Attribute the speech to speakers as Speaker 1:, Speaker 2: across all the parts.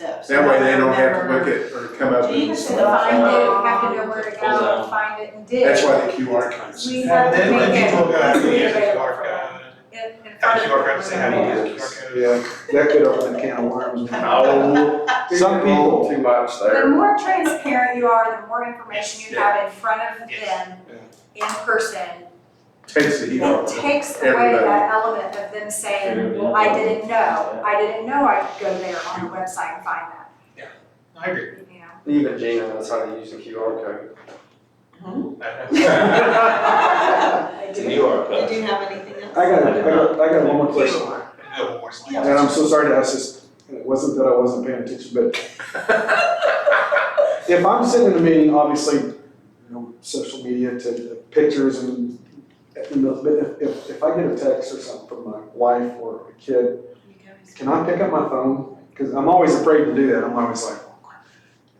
Speaker 1: That way they don't have to look at or come up
Speaker 2: You
Speaker 1: with
Speaker 2: have to
Speaker 1: some.
Speaker 2: define
Speaker 3: find
Speaker 2: it,
Speaker 3: it,
Speaker 2: you have to know where to go, find it and dig.
Speaker 1: That's why the QR codes.
Speaker 2: We have
Speaker 4: And
Speaker 2: to
Speaker 4: then
Speaker 2: make
Speaker 4: when
Speaker 2: it.
Speaker 4: people go,
Speaker 2: easily
Speaker 4: yeah, QR
Speaker 2: available.
Speaker 4: code.
Speaker 2: In- in
Speaker 4: Have
Speaker 2: front
Speaker 4: a
Speaker 2: of
Speaker 4: QR code, say how do you use a QR code?
Speaker 5: Yeah, that could open a can of worms.
Speaker 1: No, some people too much
Speaker 2: The
Speaker 1: there.
Speaker 2: more transparent you are, the more information you have in front of
Speaker 4: Yes.
Speaker 2: them in person,
Speaker 1: Takes the heat
Speaker 2: it
Speaker 1: off.
Speaker 2: takes away
Speaker 1: Everybody.
Speaker 2: that element of them saying, well, I didn't know, I didn't know I could go there on the website and find that,
Speaker 4: I agree.
Speaker 2: you know?
Speaker 6: Even Gina knows how to use the QR code.
Speaker 2: They
Speaker 3: To
Speaker 2: do.
Speaker 3: New York,
Speaker 7: They
Speaker 3: uh,
Speaker 7: do have anything else?
Speaker 5: I got, I got, I got one more question,
Speaker 4: No more slides.
Speaker 5: and I'm so sorry to ask this, and it wasn't that I wasn't paying attention, but if I'm sitting in a meeting, obviously, you know, social media to the pictures and, and those, but if, if, if I get a text or something from my wife or a kid, can I pick up my phone? Cause I'm always afraid to do that, I'm always like,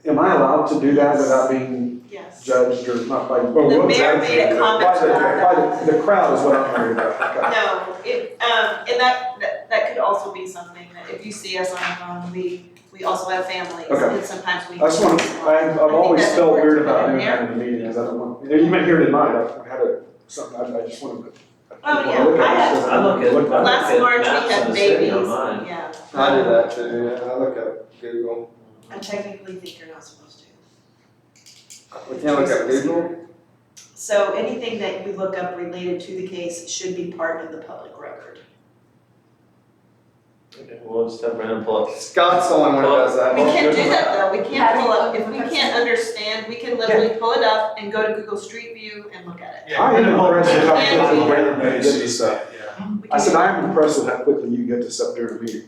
Speaker 5: am I allowed to do that without being
Speaker 7: Yes.
Speaker 5: judged or not by?
Speaker 1: Well,
Speaker 7: The
Speaker 1: we'll
Speaker 7: mayor
Speaker 1: judge
Speaker 7: made a
Speaker 1: you.
Speaker 7: comment
Speaker 5: By the,
Speaker 7: about
Speaker 5: by the, the crowd is what I'm worried about. Okay.
Speaker 7: No, it, um, and that, that, that could also be something, that if you see us on the phone, we, we also have families,
Speaker 5: Okay.
Speaker 7: and sometimes we.
Speaker 5: I just want, I, I've
Speaker 7: think
Speaker 5: always
Speaker 7: that's
Speaker 5: felt weird
Speaker 7: important
Speaker 5: about doing
Speaker 7: in there.
Speaker 5: that in a meeting, because I don't want, you might hear it in mine, I had a, something, I, I just wanted to.
Speaker 7: Oh, yeah,
Speaker 5: wanna look at
Speaker 7: I
Speaker 5: it,
Speaker 7: had-
Speaker 5: so
Speaker 3: I look at-
Speaker 5: look at it.
Speaker 7: Last
Speaker 3: Okay,
Speaker 7: March,
Speaker 3: maps
Speaker 7: we
Speaker 3: on
Speaker 7: had
Speaker 3: the city
Speaker 7: babies,
Speaker 3: online.
Speaker 7: yeah,
Speaker 6: I do that too, yeah, I look up Google.
Speaker 7: I technically think you're not supposed to.
Speaker 6: We can't look up Google?
Speaker 7: So anything that you look up related to the case should be part of the public record.
Speaker 3: We'll just have random pull up.
Speaker 6: Scott's the only one who does that.
Speaker 7: We can't do that though, we can't
Speaker 2: Yeah.
Speaker 7: pull up, if we can't understand, we can literally pull it up and go to Google Street View and look at
Speaker 4: Yeah.
Speaker 5: I am impressed with how
Speaker 7: Yeah.
Speaker 5: quickly you get
Speaker 1: Yeah.
Speaker 5: to this stuff.
Speaker 4: Yeah.
Speaker 7: it. We
Speaker 5: Oh, I
Speaker 7: can-
Speaker 5: said, I am impressed with how quickly you get this up during a meeting.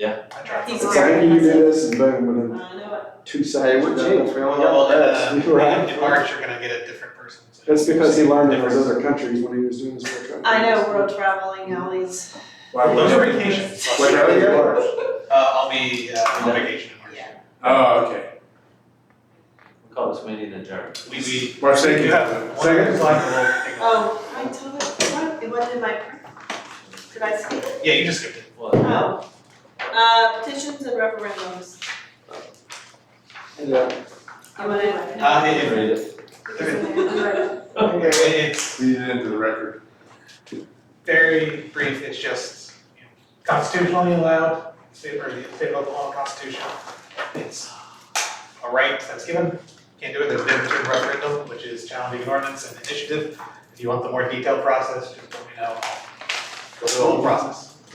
Speaker 4: I tried.
Speaker 7: He's
Speaker 5: It's
Speaker 7: very
Speaker 5: like, you do
Speaker 7: impressive.
Speaker 5: this and boom, within
Speaker 7: I know it.
Speaker 5: two
Speaker 6: Hey,
Speaker 5: seconds.
Speaker 6: what
Speaker 5: you're done.
Speaker 6: changed? We only
Speaker 4: Well,
Speaker 6: got that.
Speaker 4: then,
Speaker 5: X. Right.
Speaker 4: uh, in March, you're gonna get a different person. to-
Speaker 5: That's because he learned in those other countries when he was doing his work. countries.
Speaker 7: I know, world traveling, all these,
Speaker 1: Why would
Speaker 4: Those are
Speaker 1: you-
Speaker 4: vacations.
Speaker 1: What
Speaker 4: Uh,
Speaker 1: happened in March?
Speaker 4: I'll be, uh, on vacation in March.
Speaker 7: yeah.
Speaker 1: Oh, okay.
Speaker 3: We'll Call this meeting adjourned.
Speaker 4: We, we.
Speaker 1: March
Speaker 4: we do have
Speaker 1: second.
Speaker 4: one slide we'll take off.
Speaker 7: Oh, I totally, what, it wasn't in my, did I skip it?
Speaker 4: Yeah, you just skipped it.
Speaker 3: Well,
Speaker 7: Oh. Uh, petitions and referendums.
Speaker 5: Yeah.
Speaker 7: You wanna-
Speaker 4: Uh, it,
Speaker 3: read it.
Speaker 4: it- it's
Speaker 1: Read it into the record.
Speaker 4: very brief, it's just you know, constitutionally allowed, state, or the state of Oklahoma constitution. It's a right that's given, can't do it, there's a difference between referendum, which is challenging an ordinance and initiative. If you want the more detailed process, just let me know, I'll go through the whole process.